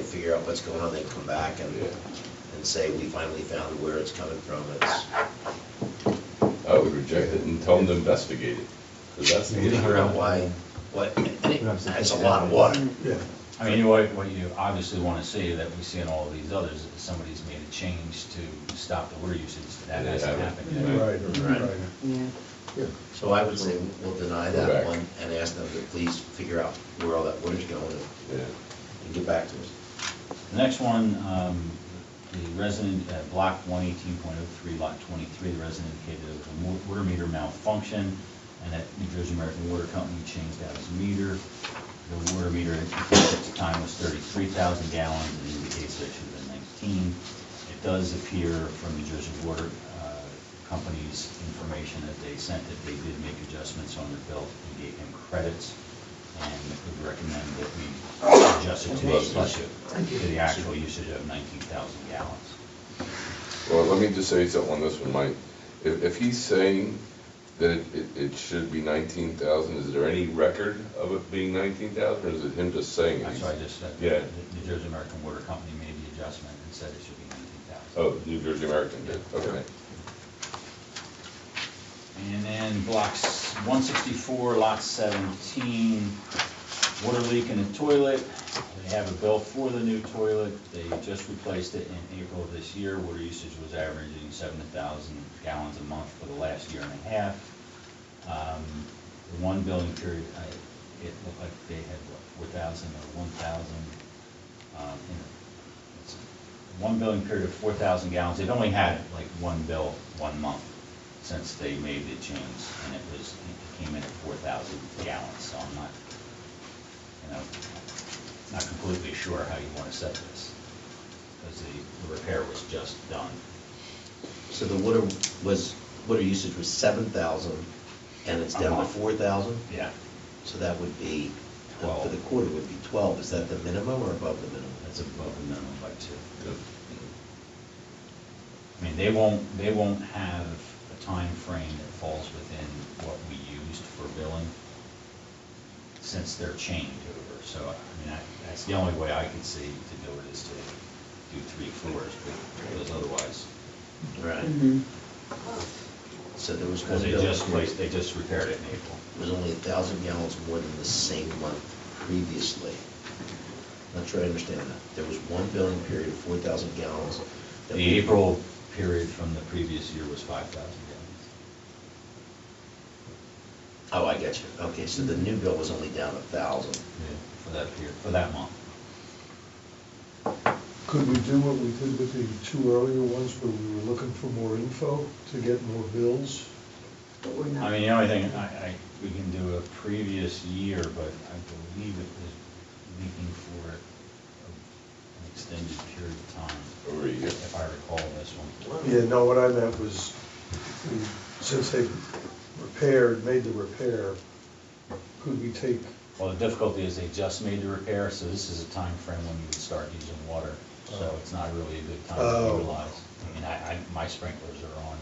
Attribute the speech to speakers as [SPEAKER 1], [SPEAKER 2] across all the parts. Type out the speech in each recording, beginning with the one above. [SPEAKER 1] figure out what's going on, they come back and, and say, we finally found where it's coming from, it's,
[SPEAKER 2] I would reject it Oh, and tell them to investigate it, because that's the
[SPEAKER 1] we figure out
[SPEAKER 2] issue.
[SPEAKER 1] why, what, and it- it's a lot of water.
[SPEAKER 3] Yeah.
[SPEAKER 4] I mean, what, what you obviously want to see that we see in all of these others, is somebody's made a change to stop the water usage, that
[SPEAKER 2] They
[SPEAKER 4] hasn't
[SPEAKER 2] haven't.
[SPEAKER 4] happened yet.
[SPEAKER 3] Right,
[SPEAKER 1] Right.
[SPEAKER 3] right, right.
[SPEAKER 5] Yeah.
[SPEAKER 3] Yeah.
[SPEAKER 1] So I would say we'll deny that
[SPEAKER 2] Correct.
[SPEAKER 1] one and ask them to please figure out where all that water's going and
[SPEAKER 2] Yeah.
[SPEAKER 1] and get back to us.
[SPEAKER 4] The next one, um, the resident, uh, block one eighteen point oh three, lot twenty-three, the resident indicated it was a wa- water meter malfunction, and that New Jersey American Water Company changed out his meter. The water meter at the time was thirty-three thousand gallons, and indicates that it should have been nineteen. It does appear from New Jersey Water uh, Company's information that they sent that they did make adjustments on their bill and gave him credits, and would recommend that we adjust it to the
[SPEAKER 2] Adjust it.
[SPEAKER 4] issue to the actual usage of 19,000 gallons.
[SPEAKER 2] Well, let me just say something on this one, Mike. If, if he's saying that it, it should be nineteen thousand, is there any record of it being nineteen thousand, or is it him just saying? it?
[SPEAKER 4] That's why I just said,
[SPEAKER 2] Yeah.
[SPEAKER 4] the New Jersey American Water Company made the adjustment and said it should be 19,000.
[SPEAKER 2] Oh, New Jersey American did, okay.
[SPEAKER 4] And then blocks 164, lot 17, water leak in the toilet. They have a bill for the new toilet. They just replaced it in April of this year. Water usage was averaging 7,000 gallons a month for the last year and a half. Um, The one billing period, I- it looked like they had, what, 4,000 or 1,000? um, in the- it's One billing period of 4,000 gallons. They've only had like one bill, one month since they made the change, and it was, it came in at 4,000 gallons, so I'm not, you know, not completely sure how you want to set this, because the repair was just done.
[SPEAKER 1] So the water was, water usage was seven thousand, and it's down to
[SPEAKER 4] Uh-huh.
[SPEAKER 1] four thousand?
[SPEAKER 4] Yeah.
[SPEAKER 1] So that would be, for the
[SPEAKER 4] Twelve.
[SPEAKER 1] quarter would be twelve, is that the minimum or above the minimum?
[SPEAKER 4] That's above the minimum by two.
[SPEAKER 2] Yeah.
[SPEAKER 4] I mean, they won't, they won't have a time frame that falls within what we used for billing since they're chained over. So, I mean, that- that's the only way I could see to do it is to do three floors, because otherwise,
[SPEAKER 1] Right. Mm-hmm.
[SPEAKER 5] Mhm.
[SPEAKER 1] So there was one
[SPEAKER 4] because they
[SPEAKER 1] bill,
[SPEAKER 4] just,
[SPEAKER 1] it
[SPEAKER 4] placed- they just repaired it in April.
[SPEAKER 1] was only a thousand gallons more than the same month previously. Not sure I understand that. There was one billing period of four thousand gallons. that
[SPEAKER 4] The
[SPEAKER 1] we-
[SPEAKER 4] April period from the previous year was 5,000 gallons.
[SPEAKER 1] Oh, I get you. Okay, so the new bill was only down a thousand.
[SPEAKER 4] For that period, for that month.
[SPEAKER 3] Could we do what we did with the two earlier ones where we were looking for more info to get more bills?
[SPEAKER 5] But we're not.
[SPEAKER 4] I mean, the only thing, I, I, we can do a previous year, but I believe it was leaking for a- an extended period of time,
[SPEAKER 2] Over a year.
[SPEAKER 4] if I recall this one.
[SPEAKER 3] Yeah, no, what I meant was, we- since they repaired, made the repair, could we take,
[SPEAKER 4] Well, the difficulty is they just made the repair, so this is a time frame when you would start using water, so
[SPEAKER 3] Oh.
[SPEAKER 4] it's not really a good time
[SPEAKER 3] Oh.
[SPEAKER 4] to utilize. I mean, I, I, my sprinklers are on,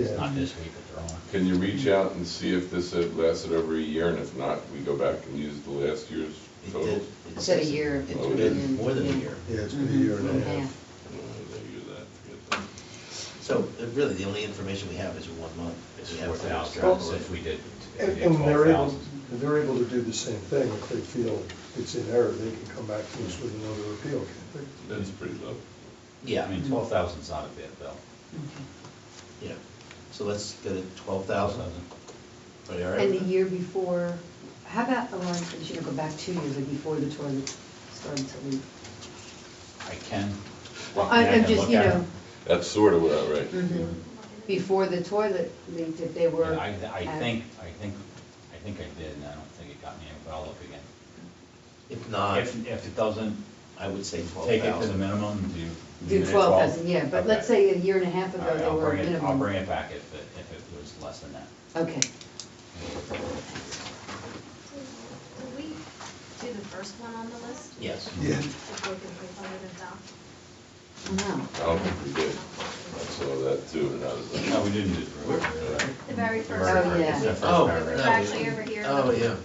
[SPEAKER 4] it's
[SPEAKER 3] Yeah.
[SPEAKER 4] not this week, but they're on.
[SPEAKER 2] Can you reach out and see if this had lasted over a year, and if not, we go back and use the last year's
[SPEAKER 1] It
[SPEAKER 2] total?
[SPEAKER 1] did.
[SPEAKER 5] It said a year.
[SPEAKER 1] It
[SPEAKER 4] Oh,
[SPEAKER 1] took it more than a year.
[SPEAKER 3] yeah, it's been
[SPEAKER 5] Mm-hmm.
[SPEAKER 3] a year and a half.
[SPEAKER 2] Uh, they use that, forget that.
[SPEAKER 1] So uh, really, the only information we have is one month.
[SPEAKER 4] It's
[SPEAKER 1] We have
[SPEAKER 4] four
[SPEAKER 1] to
[SPEAKER 4] thousand,
[SPEAKER 1] extrapolate.
[SPEAKER 4] if we did, if
[SPEAKER 3] And
[SPEAKER 4] we did
[SPEAKER 3] and they're able,
[SPEAKER 4] 12,000.
[SPEAKER 3] and they're able to do the same thing, if they feel it's in error, they can come back to us with another appeal, can't
[SPEAKER 2] That's pretty low.
[SPEAKER 1] Yeah,
[SPEAKER 4] I mean, twelve thousand's not a bad bill.
[SPEAKER 1] yeah. So let's go to twelve thousand. Are you all right?
[SPEAKER 5] And the
[SPEAKER 1] with that?
[SPEAKER 5] year before, how about, oh, I think you should go back two years, like before the toilet started to leak.
[SPEAKER 4] I can.
[SPEAKER 5] Well,
[SPEAKER 4] I
[SPEAKER 5] I-
[SPEAKER 4] can
[SPEAKER 5] I'm just,
[SPEAKER 4] look
[SPEAKER 5] you
[SPEAKER 4] at
[SPEAKER 5] know,
[SPEAKER 4] it.
[SPEAKER 2] That's sort of what I read.
[SPEAKER 5] mhm. before the toilet leaked, if they were.
[SPEAKER 4] Yeah, I, I
[SPEAKER 5] at-
[SPEAKER 4] think, I think, I think I did, and I don't think it got me, but I'll look again.
[SPEAKER 1] If not,
[SPEAKER 4] If, if it doesn't,
[SPEAKER 1] I would say Uh, twelve
[SPEAKER 4] take it to the
[SPEAKER 1] thousand.
[SPEAKER 4] minimum, do. leave it
[SPEAKER 5] Do
[SPEAKER 4] at
[SPEAKER 5] twelve thousand, yeah, but
[SPEAKER 4] Okay.
[SPEAKER 5] let's say a year and a half
[SPEAKER 4] All
[SPEAKER 5] ago,
[SPEAKER 4] right,
[SPEAKER 5] they
[SPEAKER 4] I'll
[SPEAKER 5] were
[SPEAKER 4] bring it,
[SPEAKER 5] minimum. Oh,
[SPEAKER 4] I'll bring it back if, it- if it was less than that.
[SPEAKER 5] Okay,
[SPEAKER 6] Did we do the first one on the list?
[SPEAKER 1] Yes.
[SPEAKER 3] they? Yeah.
[SPEAKER 6] Before we voted it down?
[SPEAKER 5] wow.
[SPEAKER 2] I don't think we did. I saw that too, and I was like.
[SPEAKER 4] No, we didn't do it. right?
[SPEAKER 6] The very first
[SPEAKER 4] Very
[SPEAKER 5] Oh,
[SPEAKER 6] one.
[SPEAKER 4] first,
[SPEAKER 5] yeah.
[SPEAKER 4] it's that first
[SPEAKER 1] Oh,
[SPEAKER 4] paragraph.
[SPEAKER 6] It's actually over here.
[SPEAKER 1] Oh, yeah,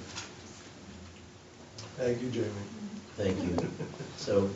[SPEAKER 3] Thank you, Jamie.
[SPEAKER 1] thank you. So